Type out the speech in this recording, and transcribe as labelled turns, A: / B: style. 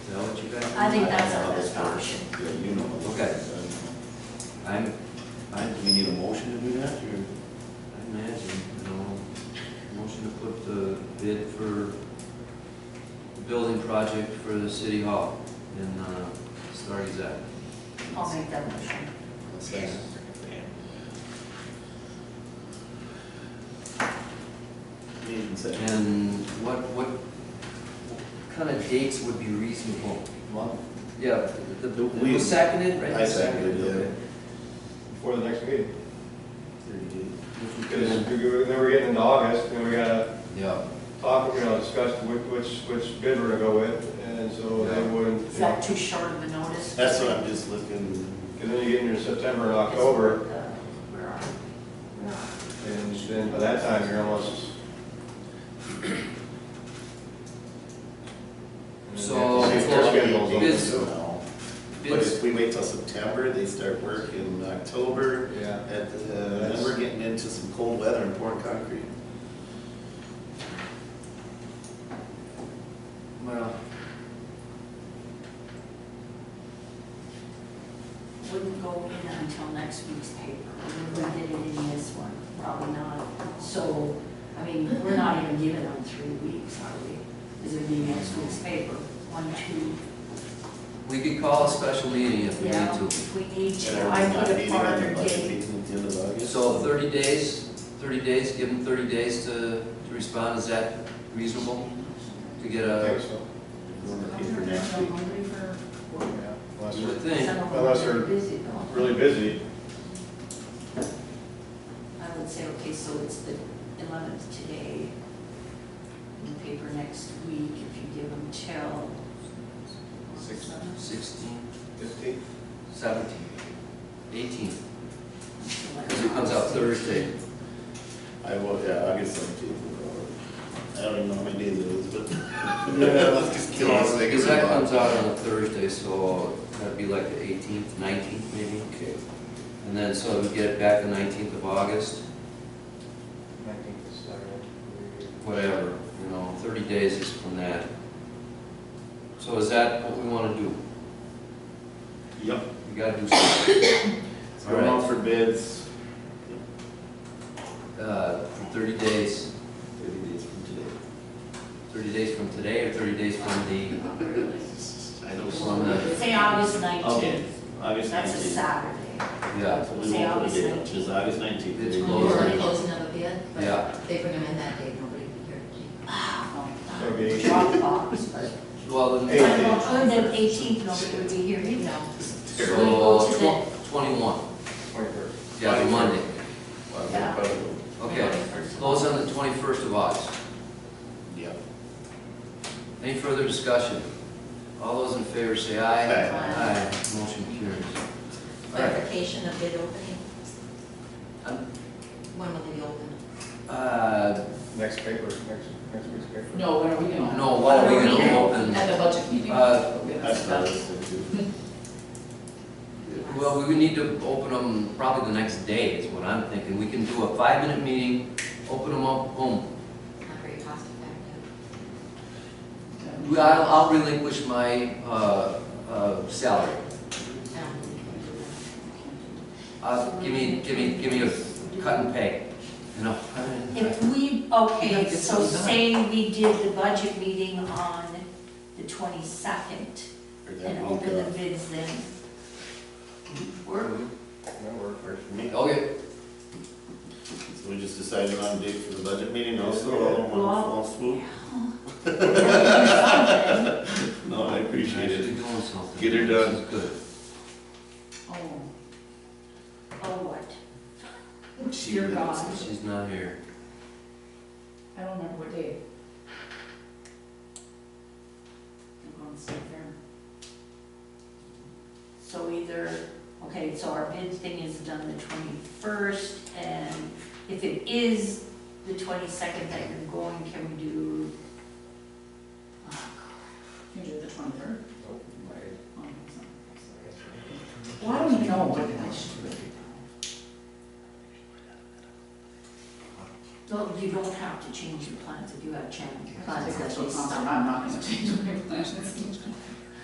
A: I think that's our best option.
B: Yeah, you know.
C: Okay. I'm, I, do we need a motion to do that, or, I imagine, you know, motion to put the bid for the building project for the city hall in, uh, Star Gazette.
A: I'll make that motion.
B: Okay. Made and seconded.
C: And what, what kind of dates would be reasonable?
B: Well,
C: Yeah, the, the,
B: We-
C: it was seconded, right?
B: I seconded, yeah.
D: before the next meeting.
B: thirty days.
D: Because
C: Okay.
D: we- we- then we're getting into August, and we gotta
C: Yeah,
D: talk, you know, discuss which, which, which bid we're gonna go with, and so they wouldn't,
A: Is
D: you know,
A: that too short of a notice?
B: That's what I'm just looking,
D: because then you get into September and
A: uh,
D: October,
A: Where are we? Where are
D: and then by that time, you're almost.
C: So-
D: And their schedule's open,
C: Biz-
D: so-
B: now. But
C: bids,
B: if we wait till September, they start work in October,
D: Yeah,
B: at, uh, then we're getting into some cold weather and pouring concrete.
C: well,
A: Wouldn't go in until next week's paper. We wouldn't get it in this one, probably not. So, I mean, we're not even giving them three weeks, are we? Because it'd be next week's paper, one, two.
C: we could call a special meeting if we need
A: Yeah,
C: to.
A: if we need
B: And
A: to,
B: everyone's
A: I
B: not
A: put it
B: meeting
A: for
B: on the
A: other
B: budget
A: date.
B: meeting at the end of August.
C: So 30 days, 30 days, give them 30 days to to respond, is that reasonable? To get
D: I think
C: a,
D: so,
B: We're looking for next week.
D: yeah, unless
C: you
D: they're
C: would think,
D: Unless they're
A: Busy though.
D: really busy,
A: I would say, okay, so it's the eleventh today, in the paper next week, if you give them till.
D: Six.
C: 16,
D: fifteen,
C: 17, 18,
A: Because
C: because it comes out Thursday.
B: I will, yeah, August seventeenth. I don't even know how many days it is, but. Let's just kill this thing.
C: Because that comes out on a Thursday, so that'd be like the 18th, 19th maybe?
B: Okay.
C: And then, so we get it back the 19th of August,
D: nineteen, Saturday.
C: whatever, you know, 30 days is from that. So is that what we want to do?
B: Yep.
C: We got to do something.
B: It's going out for bids.
C: Uh, For 30 days,
B: Thirty days from today.
C: 30 days from today or 30 days from the,
B: I don't
C: Well,
B: want to.
A: Say August
B: Okay,
A: nineteenth,
B: August
A: that's a
B: nineteenth.
A: Saturday.
C: yeah,
B: So we
A: Say
B: won't put
A: August
B: a date, which is August nineteenth.
C: It's
E: We're already
C: closed.
E: closing up a bid,
C: Yeah.
E: but they bring them in that day, nobody will be here.
D: Maybe.
A: Dropbox, but.
C: well,
A: I
C: then,
D: Eight.
A: don't know, other than eighteenth, nobody would be here either.
C: so,
A: We go to the-
C: tw- 21,
D: Twenty-third.
C: yeah, the Monday.
A: Yeah.
C: Okay, close on the 21st of August.
B: Yep.
C: Any further discussion? All those in favor say aye.
A: Aye.
C: motion carries.
E: Clarification of bid opening,
C: Um,
E: when will they be open?
C: uh,
D: Next paper, next, next week's paper.
F: No, when are we gonna?
C: No, when are we gonna
F: When are we
C: open?
F: At the budget meeting.
C: Uh,
F: We're gonna
B: That's
F: sit
B: what I
F: down.
B: was thinking.
C: Well, we would need to open them probably the next day is what I'm thinking. We can do a five-minute meeting, open them up, boom,
E: Not very cost effective.
C: Well, I'll, I'll relinquish my, uh, uh, salary.
E: Um,
C: Uh, give me, give me, give me a cut and pay, you know?
A: If we, okay, so say we did the budget meeting on the twenty-second
B: Or that uh,
A: and
B: week
A: open the
B: off.
A: bids then. Work?
D: That works.
B: Works for me.
C: Okay,
B: So we just decided on a date for the budget meeting also, all in one
A: Well-
B: fall swoop?
A: Something.
B: No, I appreciate
C: nice to
B: it.
C: be doing something.
B: Get her done.
C: This is Good.
A: Oh, oh, what?
B: She
F: Dear
B: lives.
F: God,
C: She's not here.
F: I don't remember what day.
A: I'm going to sit there. So either, okay, so our bid thing is done the twenty-first, and if it is the twenty-second that you're going, can we do? oh,
F: You did the twenty-third?
D: Nope, my-
F: Well, I don't even know what I should do.
A: No, you don't have to change your plans if you have changed
F: I
A: plans
F: think
A: that
F: that's what
A: they
F: I'm,
A: stop.
F: I'm not gonna change my plans.